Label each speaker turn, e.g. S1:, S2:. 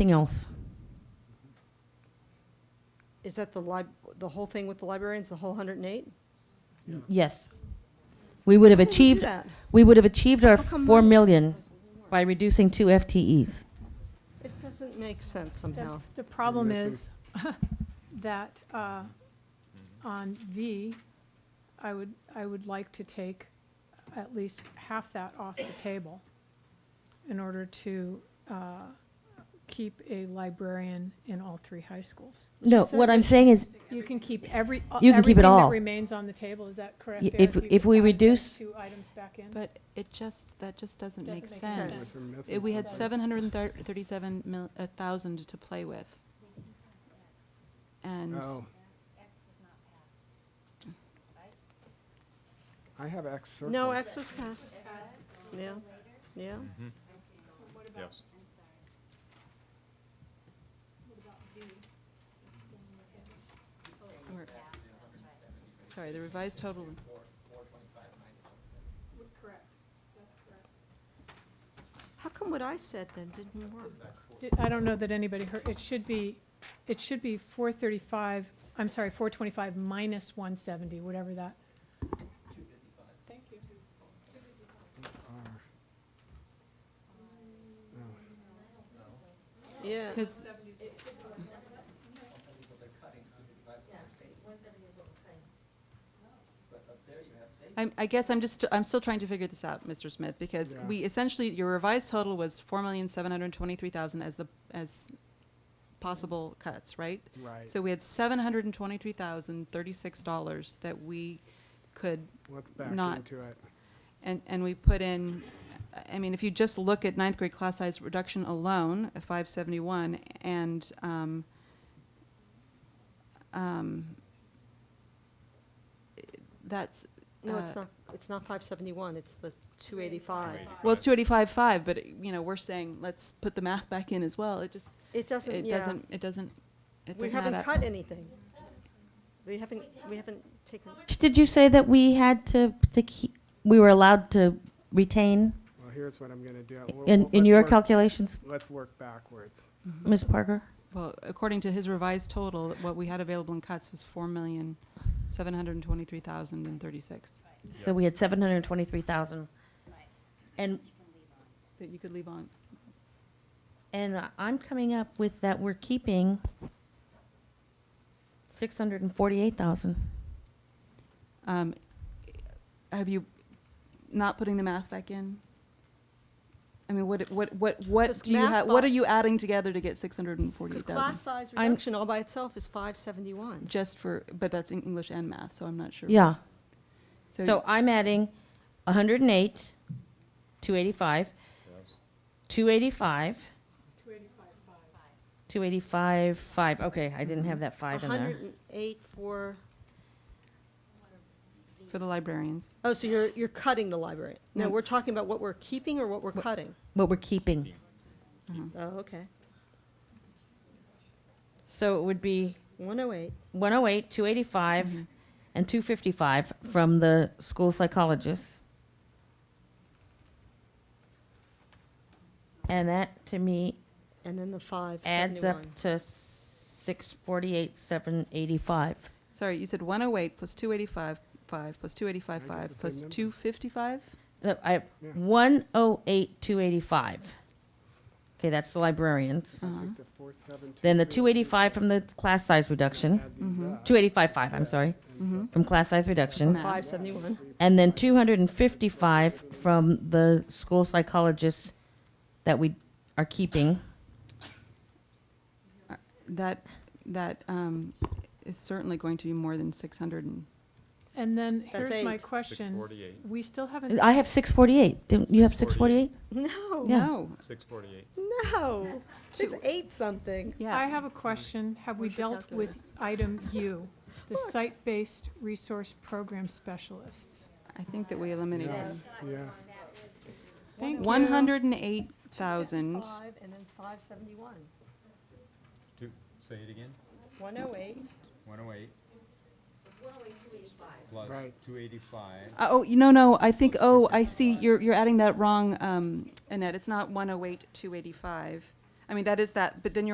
S1: Anything else?
S2: Is that the lib, the whole thing with the librarians, the whole 108?
S1: Yes. We would have
S2: How did we do
S1: achieved,
S2: that?
S1: we would have achieved our
S2: How come
S1: 4
S2: mine-
S1: million by reducing two FTEs.
S2: This doesn't make sense
S3: The-
S2: somehow.
S3: The problem
S4: missing-
S3: is that uh, on V, I would, I would like to take at least half that off the table in order to uh, keep a librarian in all three high schools.
S1: No,
S2: said
S1: what
S2: that
S1: I'm saying is,
S3: You can keep every, uh,
S1: You can keep it
S3: everything that
S1: all.
S3: remains on the table, is that correct?
S1: Y-
S3: Eric?
S1: if-
S3: You
S1: if
S3: could
S1: we
S3: add those
S1: reduce-
S3: Two items back in?
S5: But it just, that just doesn't
S3: Doesn't
S5: make
S3: make
S5: sense.
S3: sense.
S4: We're missing
S5: Uh, We had
S4: something.
S5: seven hundred and thirty-seven mil, a thousand to play with. And
S4: Oh. I have X circled.
S2: No, X was passed. Yeah, yeah.
S6: Yes.
S5: we're- Sorry, the revised total,
S2: How come what I said then didn't work?
S3: Did- I don't know that anybody heard, it should be, it should be four thirty-five, I'm sorry, four twenty-five minus one seventy, whatever that. Thank you.
S4: It's R.
S2: Yeah.
S5: because, I'm, I guess I'm just, I'm still trying to figure this out, Mr. Smith, because
S4: Yeah.
S5: we essentially, your revised total was four million, seven hundred and twenty-three thousand as the, as possible cuts, right?
S4: Right.
S5: So we had seven hundred and twenty-three thousand, thirty-six dollars that we could
S4: Let's back
S5: not-
S4: into it.
S5: And, and we put in, I mean, if you just look at ninth grade class size reduction alone, a five seventy-one, and, um, um, that's,
S2: No, it's
S5: Uh,
S2: not, it's not 571, it's the 285.
S5: well, it's two eighty-five five, but, you know, we're saying, let's put the math back in as well, it just,
S2: It doesn't,
S5: it
S2: yeah.
S5: doesn't, it doesn't, it
S2: We
S5: doesn't add
S2: haven't
S5: up.
S2: cut anything. We haven't, we haven't taken,
S1: did you say that we had to, to keep, we were allowed to retain
S4: Well, here's what I'm gonna do. We'll-
S1: in,
S4: we'll-
S1: in
S4: let's
S1: your
S4: work-
S1: calculations,
S4: Let's work backwards.
S2: Mm-hmm.
S1: Ms. Parker?
S5: Well, according to his revised total, what we had available in cuts was four million, seven hundred and twenty-three thousand and thirty-six,
S1: So we had 723,000. And,
S5: that you could leave on.
S1: and I- I'm coming up with that we're keeping 648,000.
S5: Um, have you not putting the math back in? I mean, what, what, what, what
S2: Just
S5: do you
S2: math
S5: have, what
S2: bu-
S5: are you adding together to get six hundred and forty
S2: because class
S5: thousand?
S2: size
S1: I'm-
S2: reduction all by itself is 571.
S5: Just for, but that's in English and math, so I'm not sure.
S1: Yeah. So
S5: So,
S1: I'm adding 108, 285, 285. 285, 5. Okay, I didn't have that 5 in there.
S2: 108 for,
S5: for the librarians,
S2: oh, so you're, you're cutting the library. No,
S5: No.
S2: we're talking about what we're keeping or what we're cutting?
S1: What we're keeping.
S2: Oh, okay.
S1: So it would be
S2: 108.
S1: 108, 285, and 255 from the school psychologist. And that, to me,
S2: And then the five
S1: adds
S2: seventy-one.
S1: up to 648, 785.
S5: sorry, you said one oh eight plus two eighty-five, five, plus two eighty-five,
S4: I get
S5: five,
S4: the same
S5: plus
S4: number.
S5: two fifty-five?
S1: No, I,
S4: Yeah.
S1: 108, 285. Okay, that's the librarians.
S4: So I
S5: Uh-huh.
S4: think the four, seven, two,
S1: Then the
S4: three,
S1: 285 from the class size reduction,
S4: add these
S5: Mhm.
S4: up.
S1: 285.5, I'm sorry,
S4: And so-
S1: from class size reduction.
S5: Math.
S2: Five seventy-one.
S1: And then 255 from the school psychologists that we are keeping.
S5: That, that, um, is certainly going to be more than six hundred and,
S3: And then
S2: That's
S3: here's my
S2: eight.
S3: question,
S6: 648.
S3: we still haven't,
S1: I have 648. Didn't you have 648?
S6: 648?
S2: No,
S1: Yeah.
S5: no,
S6: 648.
S2: no. It's eight something.
S5: yeah.
S3: I have a question, have we
S5: Where's your
S3: dealt with item U, the site-based resource program specialists?
S5: I think that we eliminated
S4: Yes, yeah.
S3: Thank you.
S5: one hundred and eight thousand.
S2: Five and then five seventy-one.
S6: Two, say it again.
S2: One oh eight.
S6: 108. 108,
S4: Right.
S6: 285. Plus 285.
S5: Uh, Oh, you- no, no, I think, oh, I see, you're, you're adding that wrong, um, Annette, it's not one oh eight, two eighty-five. I mean, that is that, but then you're